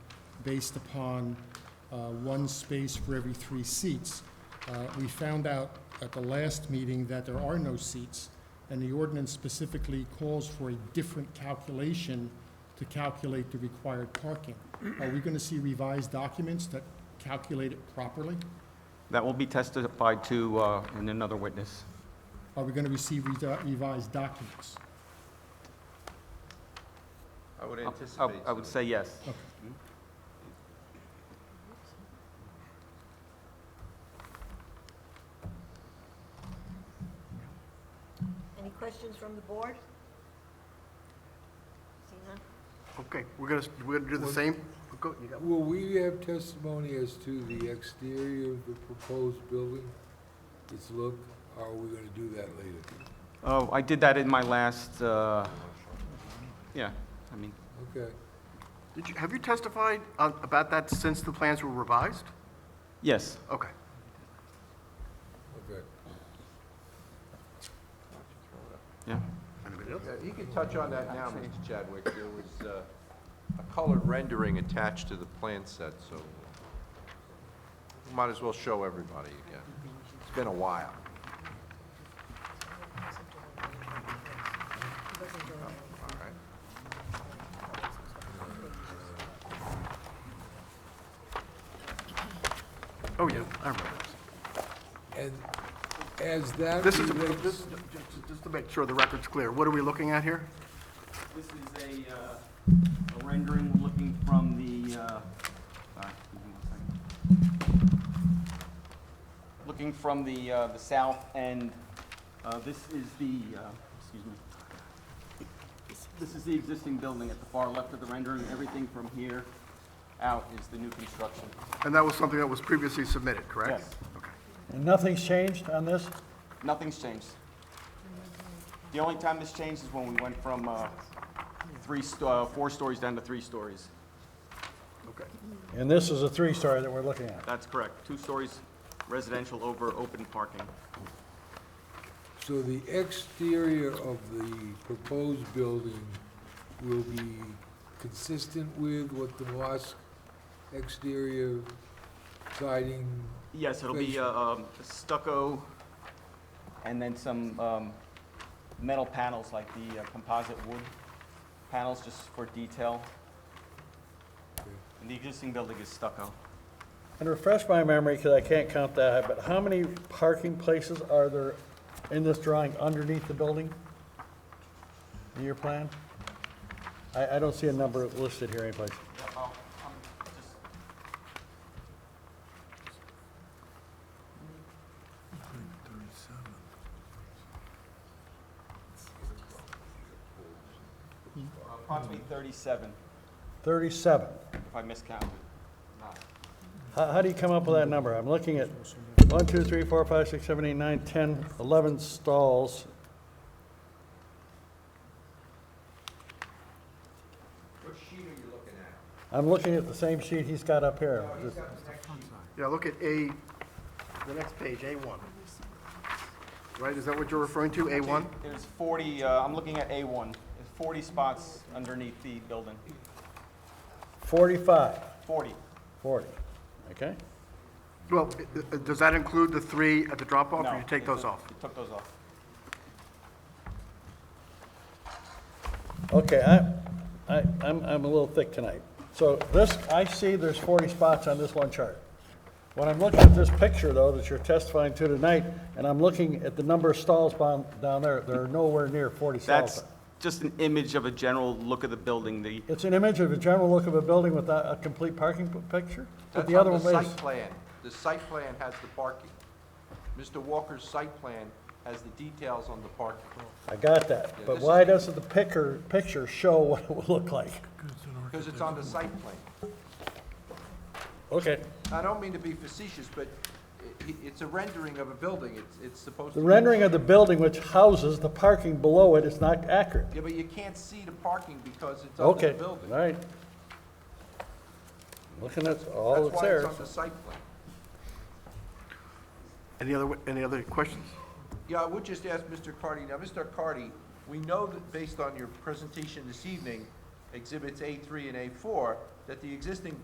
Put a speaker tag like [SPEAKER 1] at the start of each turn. [SPEAKER 1] based upon uh, one space for every three seats. Uh, We found out at the last meeting that there are no seats, and the ordinance specifically calls for a different calculation to calculate the required parking. Are we going to see revised documents that calculate it properly?
[SPEAKER 2] That will be testified to uh, in another witness.
[SPEAKER 1] Are we going to receive revi- revised documents?
[SPEAKER 3] I would
[SPEAKER 2] I-
[SPEAKER 3] anticipate.
[SPEAKER 2] I would
[SPEAKER 3] so.
[SPEAKER 2] say yes.
[SPEAKER 4] Any questions from the board? See none?
[SPEAKER 5] Okay, we're gonna, we're gonna do the same? Go- you got-
[SPEAKER 6] Will we have testimony as to the exterior of the proposed building, its look? Or Are we gonna do that later?
[SPEAKER 2] Oh, I did that in my last, uh, yeah, I mean,
[SPEAKER 6] Okay.
[SPEAKER 5] Did you, have you testified uh, about that since the plans were revised?
[SPEAKER 2] yes.
[SPEAKER 5] Okay.
[SPEAKER 6] Okay.
[SPEAKER 5] Anybody else?
[SPEAKER 3] Yeah, You can touch on that now, Mr. Chadwick. There was uh, a colored rendering attached to the plan set, so we might as well show everybody again. It's been a while. All right.
[SPEAKER 5] Oh, yeah, I remember.
[SPEAKER 6] And as that
[SPEAKER 5] This is, a- this,
[SPEAKER 6] relates,
[SPEAKER 5] ju- ju- just to make sure the record's clear, what are we looking at here?
[SPEAKER 7] This is a, uh, a rendering looking from the, uh, sorry, give me one second. Looking from the, uh, the south end, uh, this is the, uh, excuse me. This is the existing building at the far left of the rendering. Everything from here out is the new construction.
[SPEAKER 5] And that was something that was previously submitted, correct?
[SPEAKER 7] Yes.
[SPEAKER 5] Okay.
[SPEAKER 8] And nothing's changed on this?
[SPEAKER 7] Nothing's changed. The only time this changed is when we went from, uh, three, sto- uh, four stories down to three stories.
[SPEAKER 5] Okay.
[SPEAKER 8] And this is a three-story that we're looking at?
[SPEAKER 2] That's correct. Two stories residential over open parking.
[SPEAKER 6] so the exterior of the proposed building will be consistent with what the mosque exterior siding,
[SPEAKER 2] Yes, it'll be
[SPEAKER 6] Great.
[SPEAKER 2] uh, um, stucco,
[SPEAKER 7] and then some um, metal panels, like the uh, composite wood panels, just for detail. And the existing building is stucco.
[SPEAKER 8] And refresh my memory, because I can't count that, but how many parking places are there in this drawing underneath the building? In your plan? I, I don't see a number listed here anyplace.
[SPEAKER 7] Approximately 37,
[SPEAKER 8] Thirty-seven.
[SPEAKER 7] if I miscounted.
[SPEAKER 8] How, how do you come up with that number? I'm looking at one, two, three, four, five, six, seven, eight, nine, ten, eleven stalls.
[SPEAKER 3] What sheet are you looking at?
[SPEAKER 8] I'm looking at the same sheet he's got up here.
[SPEAKER 5] Yeah, look at A, the next page, A1. Right, is that what you're referring to, A1?
[SPEAKER 7] There's 40, uh, I'm looking at A1, there's 40 spots underneath the building,
[SPEAKER 8] Forty-five.
[SPEAKER 7] 40.
[SPEAKER 8] Forty, okay?
[SPEAKER 5] Well, i- i- does that include the three at the drop-off,
[SPEAKER 7] No,
[SPEAKER 5] or you take
[SPEAKER 7] it
[SPEAKER 5] those
[SPEAKER 7] took-
[SPEAKER 5] off?
[SPEAKER 7] it Took those off.
[SPEAKER 8] Okay, I, I, I'm, I'm a little thick tonight. So this, I see there's forty spots on this one chart. When I'm looking at this picture though, that you're testifying to tonight, and I'm looking at the number of stalls down, down there, there are nowhere near forty stalls.
[SPEAKER 2] that's just an image of a general look of the building. The,
[SPEAKER 8] It's an image of a general look of a building without a complete parking p- picture? But the
[SPEAKER 3] That's
[SPEAKER 8] other
[SPEAKER 3] on
[SPEAKER 8] one
[SPEAKER 3] The
[SPEAKER 8] is,
[SPEAKER 3] site plan, the site plan has the parking. Mr. Walker's site plan has the details on the parking.
[SPEAKER 8] I got that,
[SPEAKER 3] Yeah,
[SPEAKER 8] but
[SPEAKER 3] this
[SPEAKER 8] why doesn't the picker, picture show what it would look like?
[SPEAKER 3] Because it's on the site plan.
[SPEAKER 8] Okay.
[SPEAKER 3] I don't mean to be facetious, but i- i- it's a rendering of a building. It's, it's supposed to.
[SPEAKER 8] The
[SPEAKER 3] be-
[SPEAKER 8] rendering of the building which houses the parking below it is not accurate.
[SPEAKER 3] Yeah, but you can't see the parking because it's on the
[SPEAKER 8] Okay,
[SPEAKER 3] building.
[SPEAKER 8] all right. Looking at
[SPEAKER 3] That's
[SPEAKER 8] all that's
[SPEAKER 3] why it's
[SPEAKER 8] there.
[SPEAKER 3] on the site plan.
[SPEAKER 5] Any other, any other questions?
[SPEAKER 3] Yeah, I would just ask Mr. Cardy, now, Mr. Cardy, we know that based on your presentation this evening, exhibits A3 and A4, that the existing